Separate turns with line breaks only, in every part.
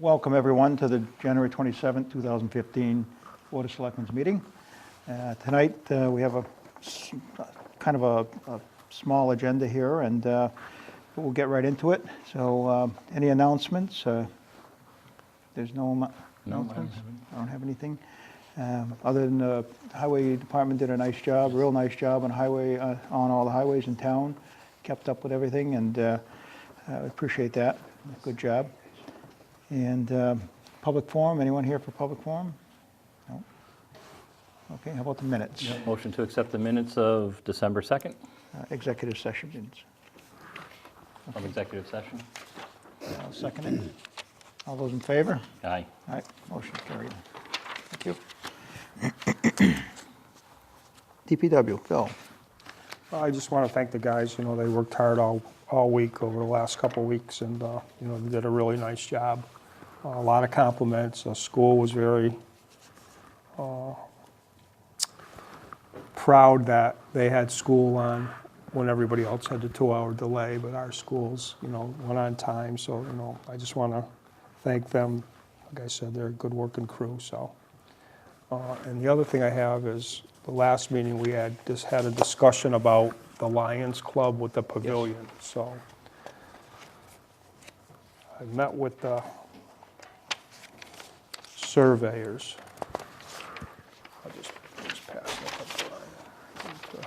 Welcome, everyone, to the January 27, 2015 Board of Selectmen's meeting. Uh, Tonight, uh, we have a, s- kind of a, a small agenda here, and uh, but we'll get right into it. So um, any announcements? Uh, There's no amo- announcements? I don't have anything. Um, Other than the Highway Department did a nice job, real nice job on highway, uh, on all the highways in town, kept up with everything, and uh, I appreciate that. Good job. And um, public forum, anyone here for public forum? No? Okay, how about the minutes?
Motion to accept the minutes of December 2nd
Uh, Executive session minutes.
of executive session.
I'll second it. All those in favor?
Aye.
All right, motion carried. Thank you. DPW, Phil.
I just want to thank the guys, you know, they worked hard all, all week over the last couple of weeks, and, uh, you know, they did a really nice job. Uh, A lot of compliments, the school was very uh, proud that they had school on when everybody else had the two-hour delay, but our schools, you know, went on time, so, you know, I just want to thank them. Like I said, they're a good working crew, so. Uh, And the other thing I have is, the last meeting we had, just had a discussion about the Lions Club with the pavilion, so. I met with the surveyors. I'll just, just pass it up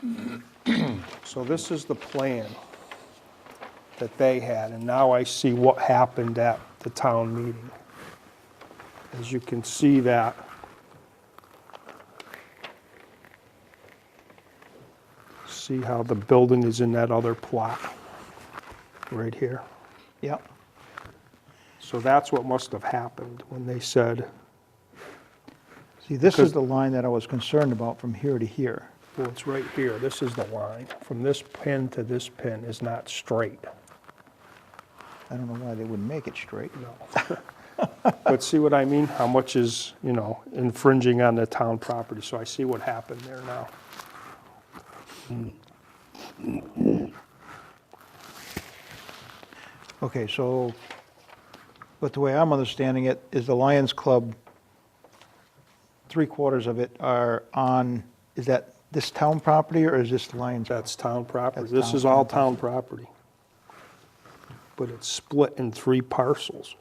the line. So this is the plan that they had, and now I see what happened at the town meeting. As you can see that. See how the building is in that other plot, right here.
Yep,
So that's what must have happened when they said,
see, this is the line that I was concerned about from here to here.
well, it's right here, this is the line. From this pin to this pin is not straight.
I don't know why they wouldn't make it straight.
No. But see what I mean? How much is, you know, infringing on the town property? So I see what happened there now.
Okay, so, but the way I'm understanding it is the Lions Club, three quarters of it are on, is that this town property or is this the Lions?
That's town property.
That's
This
town
is all town property. But it's split in three parcels.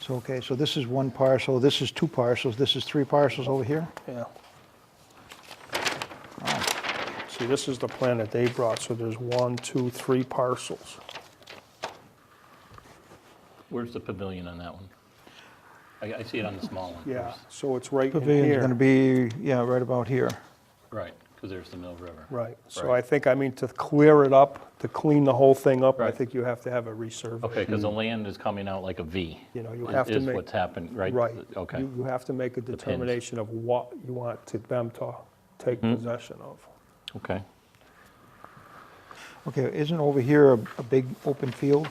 So, okay, so this is one parcel, this is two parcels, this is three parcels over here?
Yeah. See, this is the plan that they brought, so there's one, two, three parcels.
Where's the pavilion on that one? I, I see it on the small one.
Yeah, so it's right in
Pavilion's gonna
here.
be, yeah, right about here.
Right, because there's the Mill River.
Right, so I
Right.
think, I mean, to clear it up, to clean the whole thing up, I
Right.
think you have to have a resurvey.
Okay, because the land is coming out like a V.
You know, you
is-
have to
Is
make-
what's happened, right?
Right.
Okay.
You you have to make a
pins.
determination of what you want to- them to take
Hmm?
possession of.
Okay.
Okay, isn't over here a, a big open field?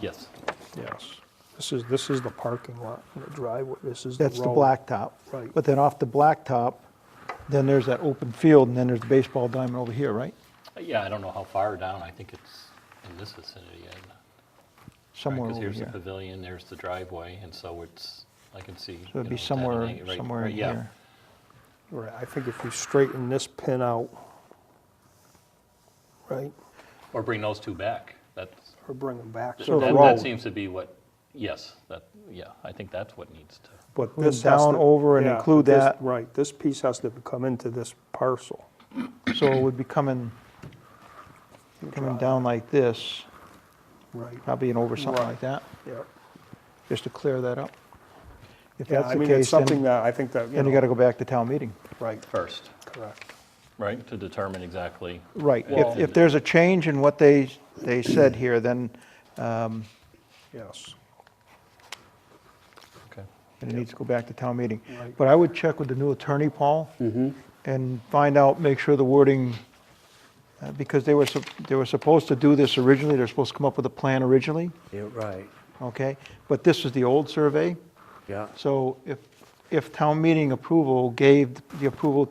Yes.
Yes. This is, this is the parking lot, and the driveway, this is the road.
That's the blacktop.
Right.
But then off the blacktop, then there's that open field and then there's the baseball diamond over here, right?
Yeah, I don't know how far down. I think it's in this vicinity.
Somewhere over
Because here's
here.
the pavilion, there's the driveway, and so it's, I can
So
see. you
it'd
know,
be
it's at an
somewhere,
angle, right-
somewhere in
right, yeah.
here.
Right, I think if you straighten this pin out, right,
Or bring those two back. That's,
or bring them back to the
That, that
road.
seems to be what, yes, that, yeah, I think that's what needs to,
But
Move
this has
down
to-
over and
Hmm, yeah,
include
this-
that.
Right, this piece has to come into this parcel.
So it would be coming, coming down like this,
Right,
probably an over something like that,
yeah.
just to clear that up. If
Yeah,
that's
I
the
mean, it's
case, then,
something that I think that, you
then you
know,
gotta go back to town meeting.
right,
first,
correct.
right, to determine exactly.
Right, if,
Well-
if there's a change in what they, they said here, then
Yes,
Okay.
then it needs to go back to town meeting.
Right.
But I would check with the new attorney, Paul, and find out, make sure the wording, uh, because they were, sup- they were supposed to do this originally, they're supposed to come up with a plan originally,
Yeah, right,
okay? But this is the old survey,
yeah.
So if, if town meeting approval gave the approval